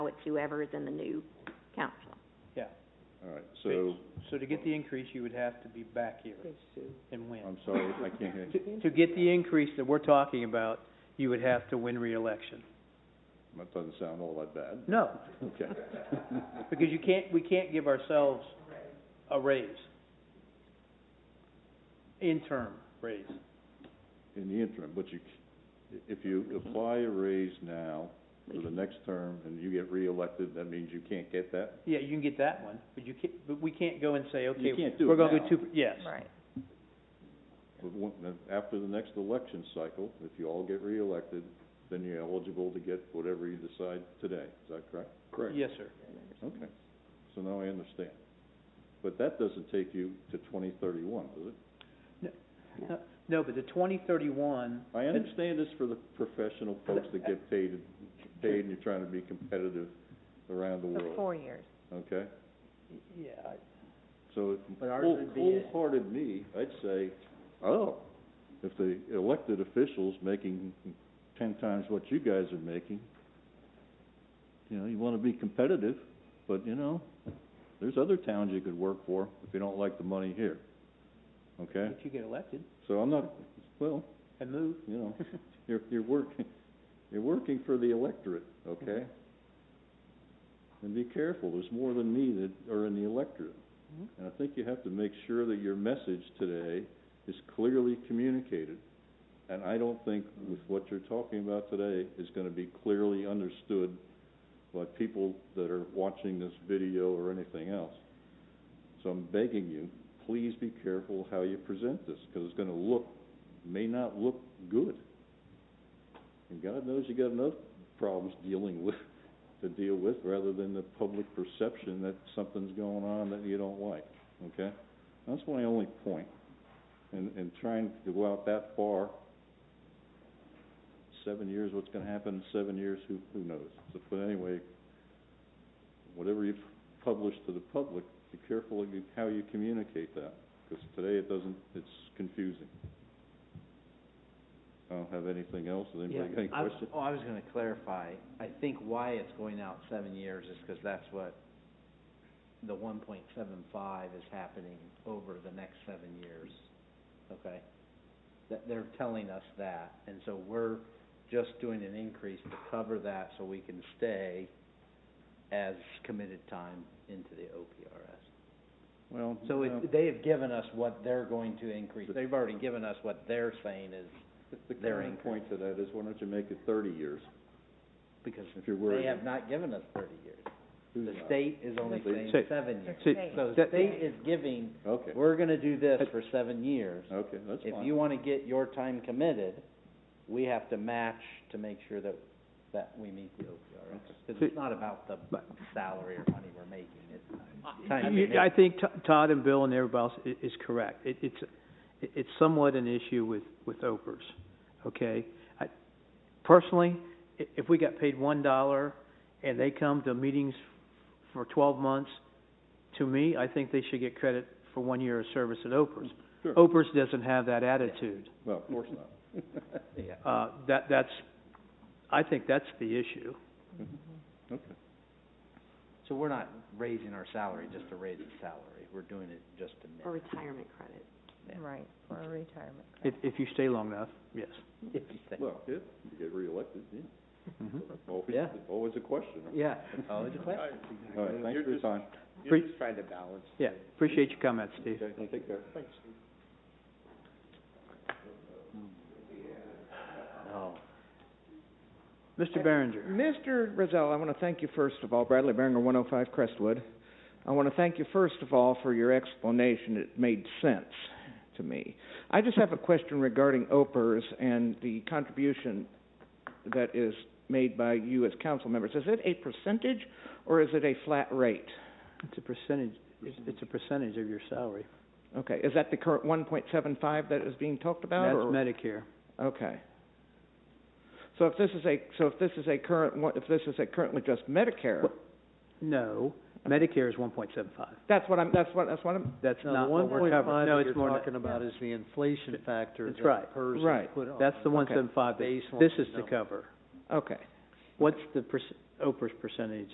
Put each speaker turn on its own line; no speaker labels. it's whoever is in the new council.
yeah.
All right, so,
So to get the increase, you would have to be back here and win.
I'm sorry, I can't hear,
To, to get the increase that we're talking about, you would have to win reelection.
that doesn't sound all that bad.
No,
Okay.
because you can't, we can't give ourselves a raise. Interim raise.
In the interim, but you, c- if you apply a raise now for the next term and you get reelected, that means you can't get that?
Yeah, you can get that one, but you can't, but we can't go and say, okay,
can't do
we're
it
gonna
now.
go two, per- yes.
Right.
But when, then after the next election cycle, if you all get reelected, then you're eligible to get whatever you decide today, is that correct? Correct.
Yes, sir.
Okay, so now I understand. But that doesn't take you to twenty thirty-one, does it?
No, but the twenty thirty-one,
I understand this for the professional folks that get paid, paid and you're trying to be competitive around the world,
four years.
okay?
yeah, I-
So,
But ours
whole-
would be a-
wholehearted me, I'd say, oh, if the elected official's making ten times what you guys are making, you know, you wanna be competitive, but you know, there's other towns you could work for if you don't like the money here, okay?
if you get elected
So I'm not, well,
and move,
you know, you're, you're working, you're working for the electorate, okay? And be careful, there's more than me that are in the electorate.
Mhm.
And I think you have to make sure that your message today is clearly communicated. And I don't think with what you're talking about today is gonna be clearly understood by people that are watching this video or anything else. So I'm begging you, please be careful how you present this, 'cause it's gonna look may not look good. And God knows you got enough problems dealing with, to deal with, rather than the public perception that something's going on that you don't like, okay? That's my only point. And, and trying to go out that far, seven years, what's gonna happen in seven years, who, who knows? So, but anyway, whatever you publish to the public, be careful of you- how you communicate that, 'cause today it doesn't, it's confusing. I don't have anything else, Does anybody got any
I-
questions?
Oh, I was gonna clarify, I think why it's going out seven years is 'cause that's what the one point seven five is happening over the next seven years, okay? That, they're telling us that, and so we're just doing an increase to cover that so we can stay as committed time into the OPRS.
Well,
So
no.
it, they have given us what they're going to increase,
But-
they've already given us what they're saying is,
The
Their
counterpoint to that is, why don't you make it thirty years?
because
If you're
they
worried.
have not given us thirty years.
Who's
The
not?
state is only
The
saying
state.
seven years.
See,
So the
that-
state is giving,
Okay,
we're gonna do this for seven years.
okay, that's
If
fine.
you wanna get your time committed, we have to match to make sure that, that we meet the OPRS. Cause
See-
it's not about the
But-
salary or money we're making, it's time
You-
committed.
I think To- Todd and Bill and everybody else i- is correct. It, it's, it- it's somewhat an issue with, with OPERS, okay? I, personally, i- if we got paid one dollar and they come to meetings for twelve months, to me, I think they should get credit for one year of service at OPERS.
Sure.
OPERS doesn't have that attitude.
Well, of course not.
Yeah.
Uh, that, that's, I think that's the issue.
Okay,
So we're not raising our salary just to raise the salary, we're doing it just to
For
match.
retirement credit.
Right, for a retirement.
If, if you stay long enough, yes.
if you think.
well, yeah, you get reelected, yeah. Always,
Yeah.
always a question.
Yeah, always Oh, a question.
All right, thanks for your time.
You're just trying to balance. Yeah, appreciate your comments, Steve.
Okay, take care.
Oh.
Mr. Behringer.
Mr. Rizal, I want to thank you first of all, Bradley Beringer, 105 Crestwood. I want to thank you first of all for your explanation. It made sense to me. I just have a question regarding OPERS and the contribution that is made by you as council members. Is it a percentage or is it a flat rate?
It's a percentage, it's, it's a percentage of your salary.
Okay, is that the current 1.75 that is being talked about?
That's
or-
Medicare.
Okay. So if this is a so if this is a current one- if this is a currently just Medicare,
What- No, Medicare is one point seven five.
that's what I'm that's what that's what I'm
That's
No,
not
the
what we're covering. No, it's
you're
more than
talking about is the inflation factor
That's
that
right.
PERS is Oh,
Right.
put on.
that. That's the one seven five that this is to
baseline
cover.
Okay.
What's the perc- Oprah's percentage